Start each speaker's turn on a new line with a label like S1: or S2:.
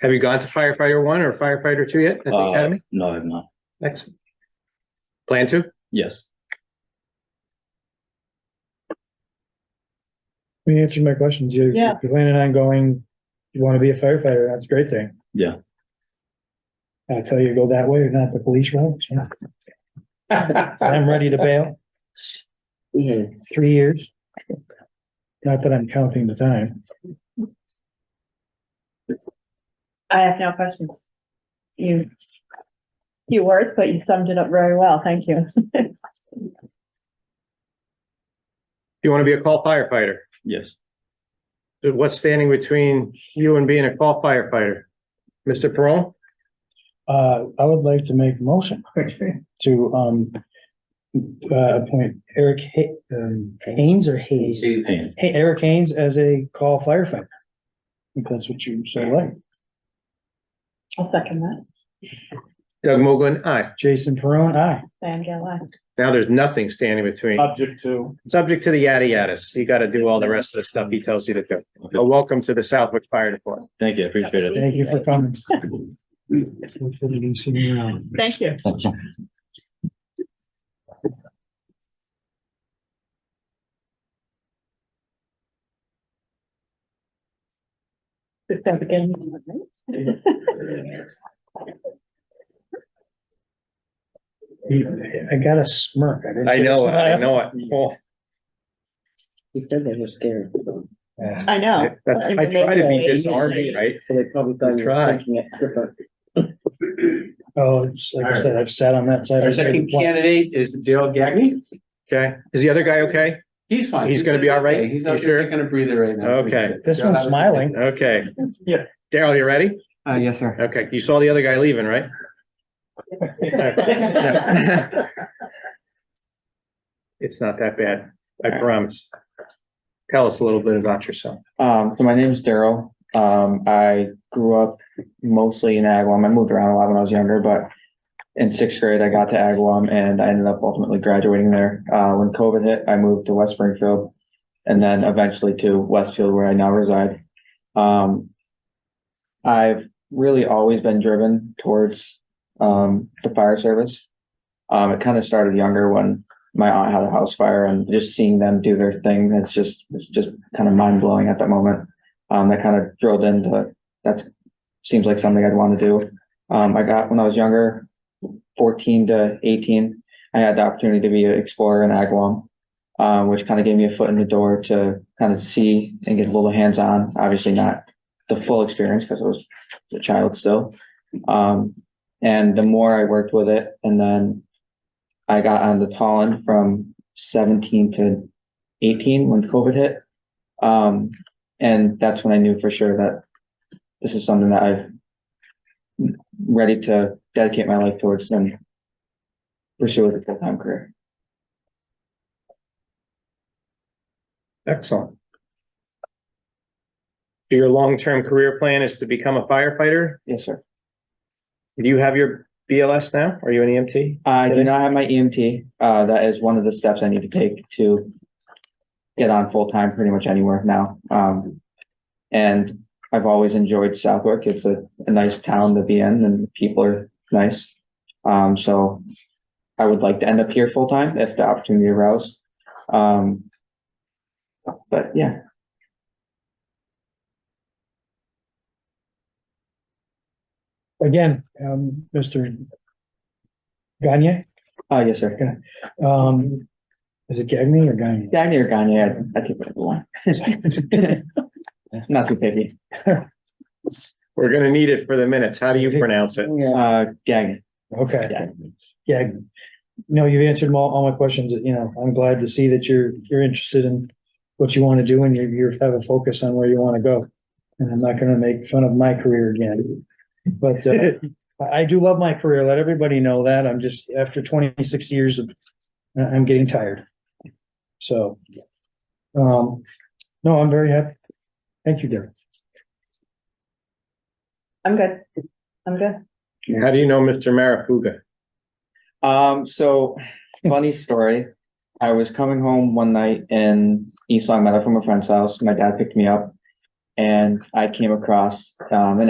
S1: Have you gone to firefighter one or firefighter two yet at the
S2: Uh,
S1: academy?
S2: No, I've not.
S1: Excellent. Plan to?
S2: Yes.
S3: You answered my questions. You-
S4: Yeah.
S3: You're planning on going, you want to be a firefighter. That's a great thing.
S2: Yeah.
S3: I tell you, go that way or not the police route. yeah. I'm ready to bail. Three years. Not that I'm counting the time.
S4: I have no questions. You, few words, but you summed it up very well. Thank you.
S1: You want to be a call firefighter?
S2: Yes.
S1: So What's standing between you and being a call firefighter? Mr. Peron?
S3: Uh, I would like to make a motion to, um, uh, appoint Eric Ha- um, Haynes or Hayes?
S2: Steve Haynes.
S3: Hey, Eric Haynes as a call firefighter. If that's what you say, like.
S4: I'll second that.
S1: Doug Mogul, aye.
S3: Jason Perone, aye.
S4: Diane Gale, aye.
S1: Now there's nothing standing between.
S5: Object to.
S1: Subject to the yada yadas. You got to do all the rest of the stuff he tells you to do. But welcome to the Southwick Fire Department.
S2: Thank you. I appreciate it.
S3: Thank you for coming.
S4: Thank you. Good job again.
S3: I got a smirk. didn't
S1: I know, it. I
S3: smile.
S1: know it. Oh,
S6: He said they were scared.
S4: I know.
S1: that's- I try to be disarming, right?
S6: So they probably thought you
S1: Try.
S6: were thinking it different.
S3: Oh, it's like I said, I've sat on that side.
S5: Our second candidate is Dale Gagny.
S1: Okay. Is the other guy okay?
S5: He's fine.
S1: He's gonna be all right?
S5: He's
S1: You
S5: out
S1: sure?
S5: there taking a breather right now.
S1: Okay.
S3: This one's smiling.
S1: Okay.
S3: Yeah.
S1: Daryl, you ready?
S5: Uh, yes, sir.
S1: Okay. You saw the other guy leaving, right? No. It's not that bad. I promise. Tell us a little bit about yourself.
S7: Um, so my name is Daryl. Um, I grew up mostly in Agawam. I moved around a lot when I was younger, but in sixth grade, I got to Agawam and I ended up ultimately graduating there. Uh, when COVID hit, I moved to West Springfield and then eventually to Westfield, where I now reside. Um, I've really always been driven towards um, the fire service. Um, it kind of started younger when my aunt had a house fire and just seeing them do their thing. It's just, it's just kind of mind blowing at that moment. Um, that kind of drilled into, that's, seems like something I'd want to do. Um, I got, when I was younger, fourteen to eighteen, I had the opportunity to be an explorer in Agawam. Um, which kind of gave me a foot in the door to kind of see and get a little hands-on, obviously not the full experience because I was a child still. Um, and the more I worked with it and then I got on the Tallinn from seventeen to eighteen when COVID hit. Um, and that's when I knew for sure that this is something that I've ready to dedicate my life towards and pursue with a full-time career.
S1: Excellent. So Your long-term career plan is to become a firefighter?
S7: Yes, sir.
S1: Do you have your BLS now? Are you an E EMT?
S7: I do not have my EMT. Uh, that is one of the steps I need to take to get on full-time pretty much anywhere now. Um, and I've always enjoyed Southwick. It's a, a nice town to be in and people are nice. Um, so I would like to end up here full-time if the opportunity arises. Um, but yeah,
S3: Again, um, Mr. Gagne,
S7: uh, yes, sir.
S3: um, is it Gagne or Gagne?
S7: Gagne or Gagne, I, I take whatever one. Not too picky.
S1: We're gonna need it for the minutes. How do you pronounce it?
S6: Yeah.
S7: Uh, Gagne.
S3: Okay, yeah. No, you've answered them all, all my questions. You know, I'm glad to see that you're, you're interested in what you want to do and you, you have a focus on where you want to go. And I'm not going to make fun of my career again. But uh, I I do love my career. Let everybody know that. I'm just, after twenty-six years of, I- I'm getting tired. So, um, no, I'm very happy. Thank you, Derek.
S4: I'm good. I'm good.
S1: How do you know Mr. Marafuga?
S7: Um, so funny story. I was coming home one night in East Long Meadow from a friend's house. My dad picked me up and I came across um, an